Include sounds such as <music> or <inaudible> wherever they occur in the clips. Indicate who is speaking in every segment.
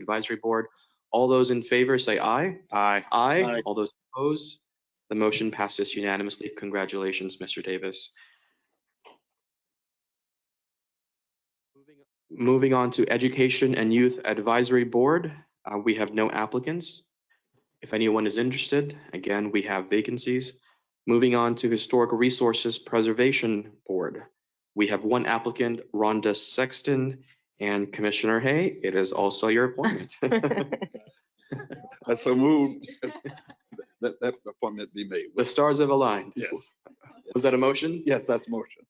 Speaker 1: Advisory Board. All those in favor, say aye.
Speaker 2: Aye.
Speaker 1: Aye.
Speaker 2: Aye.
Speaker 1: All those opposed? The motion passes unanimously. Congratulations, Mr. Davis. Moving on to Education and Youth Advisory Board, uh, we have no applicants. If anyone is interested, again, we have vacancies. Moving on to Historic Resources Preservation Board, we have one applicant, Rhonda Sexton, and Commissioner Hay, it is also your appointment. <laughs>
Speaker 2: That's so moved. <laughs> That, that appointment be made.
Speaker 1: The stars have aligned.
Speaker 2: Yes,
Speaker 1: Was that a motion?
Speaker 2: yes, that's motion.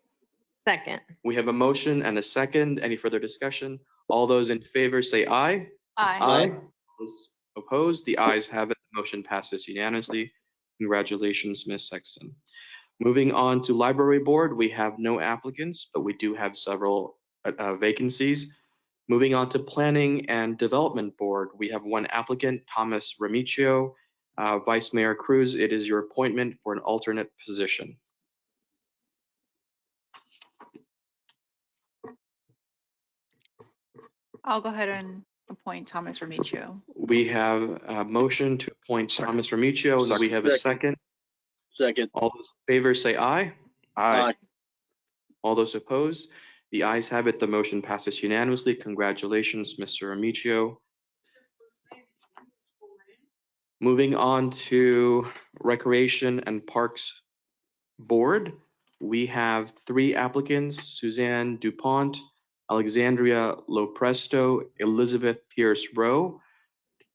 Speaker 3: <laughs> Second.
Speaker 1: We have a motion and a second. Any further discussion? All those in favor say aye.
Speaker 2: Aye.
Speaker 1: Those Opposed? The ayes have it. The Motion passes unanimously. Congratulations, Ms. Sexton. Moving on to Library Board, we have no applicants, but we do have several uh, uh, vacancies. Moving on to Planning and Development Board, we have one applicant, Thomas Remicchio. Uh, Vice Mayor Cruz, it is your appointment for an alternate position.
Speaker 4: I'll go ahead and appoint Thomas Remicchio.
Speaker 1: We have a motion to appoint Thomas Remicchio. and We have a second.
Speaker 5: Second.
Speaker 1: All those in favor say aye.
Speaker 2: Aye.
Speaker 1: All those opposed? The ayes have it. The motion passes unanimously. Congratulations, Mr. Amicio. Moving on to Recreation and Parks Board, we have three applicants, Suzanne Dupont, Alexandria Lopresto, Elizabeth Pierce Rowe,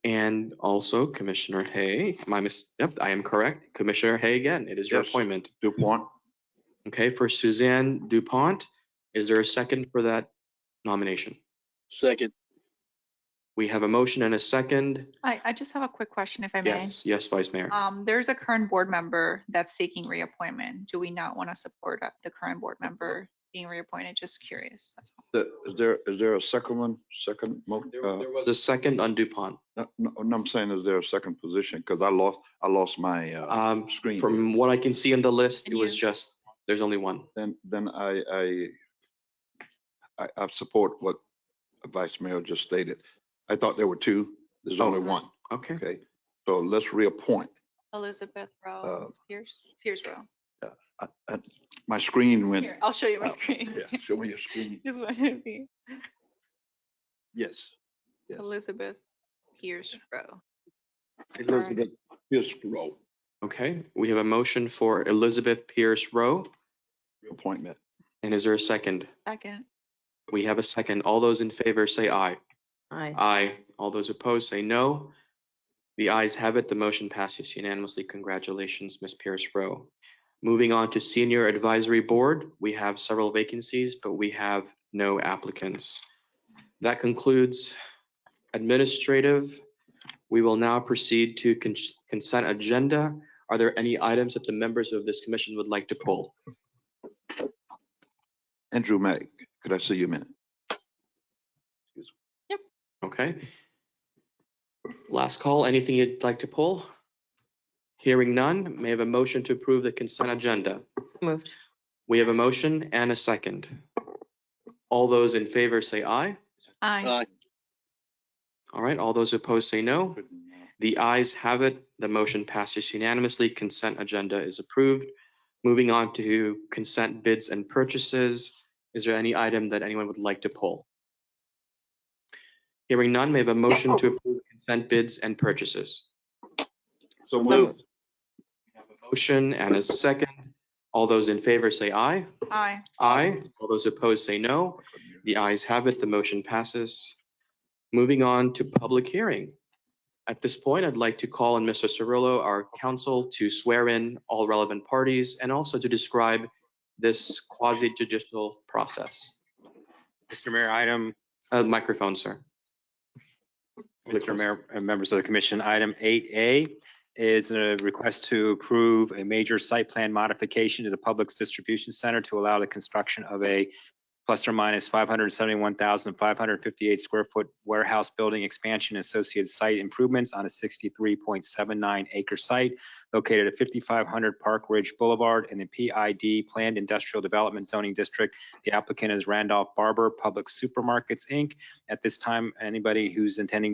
Speaker 1: and also Commissioner Hay. Am I mis, yep, I am correct. Commissioner Hay again. It is your
Speaker 2: Yes.
Speaker 1: appointment.
Speaker 2: DuPont,
Speaker 1: Okay, for Suzanne Dupont, is there a second for that nomination?
Speaker 5: Second.
Speaker 1: We have a motion and a second.
Speaker 4: I, I just have a quick question if I may.
Speaker 1: Yes, yes, Vice Mayor.
Speaker 4: Um, there's a current board member that's seeking reappointment. Do we not want to support uh, the current board member being reappointed? Just curious. That's all.
Speaker 2: the- is there, is there a second one, second? mo-
Speaker 1: There
Speaker 2: uh,
Speaker 1: there was a second on Dupont.
Speaker 2: No, no, no, I'm saying is there a second position? Because I lost, I lost my uh,
Speaker 1: Um,
Speaker 2: screen.
Speaker 1: From what I can see in the list, it
Speaker 4: And
Speaker 1: was
Speaker 4: you-
Speaker 1: just, there's only one.
Speaker 2: Then, then I, I, I, I support what Vice Mayor just stated. I thought there were two. There's
Speaker 1: Oh.
Speaker 2: only one.
Speaker 1: Okay,
Speaker 2: Okay, so let's reappoint.
Speaker 4: Elizabeth
Speaker 2: Uh,
Speaker 4: Rowe, Pierce, Pierce Rowe.
Speaker 2: I- I- My screen went,
Speaker 4: Here, I'll show you my
Speaker 2: Oh,
Speaker 4: screen. <laughs>
Speaker 2: yeah, show me your screen.
Speaker 4: Just want to be
Speaker 2: Yes. Yes.
Speaker 4: Elizabeth Pierce Rowe.
Speaker 2: Elizabeth Pierce Rowe,
Speaker 1: okay. We have a motion for Elizabeth Pierce Rowe.
Speaker 2: reappointment.
Speaker 1: And is there a second?
Speaker 4: Second.
Speaker 1: We have a second. All those in favor say aye.
Speaker 3: Aye.
Speaker 1: Aye. All those opposed say no. The ayes have it. The motion passes unanimously. Congratulations, Ms. Pierce Rowe. Moving on to Senior Advisory Board, we have several vacancies, but we have no applicants. That concludes administrative. We will now proceed to con- consent agenda. Are there any items that the members of this commission would like to pull?
Speaker 2: Andrew May, could I see you a minute?
Speaker 1: Okay. Last call, anything you'd like to pull? Hearing none, may I have a motion to approve the consent agenda?
Speaker 3: Moved.
Speaker 1: We have a motion and a second. All those in favor say aye.
Speaker 4: Aye.
Speaker 5: Aye.
Speaker 1: All right, all those opposed say no. The ayes have it. The motion passes unanimously. Consent agenda is approved. Moving on to consent bids and purchases. Is there any item that anyone would like to pull? Hearing none, may I have a motion to approve consent bids and purchases?
Speaker 2: So
Speaker 3: moved.
Speaker 1: Motion and a second. All those in favor say aye.
Speaker 4: Aye.
Speaker 1: Aye. All those opposed say no. The ayes have it. The motion passes. Moving on to public hearing. At this point, I'd like to call on Mr. Cirillo, our counsel, to swear in all relevant parties and also to describe this quasi judicial process.
Speaker 6: Mr. Mayor, item,
Speaker 1: Uh, Microphone, sir.
Speaker 6: Mr. Mayor, and uh, members of the commission, item 8A is a request to approve a major site plan modification to the Public Distribution Center to allow the construction of a plus or minus 571,558 square foot warehouse building expansion and associated site improvements on a 63.79 acre site located at 5500 Park Ridge Boulevard in the PID Planned Industrial Development Zoning District. The applicant is Randolph Barber Public Supermarkets, Inc. At this time, anybody who's intending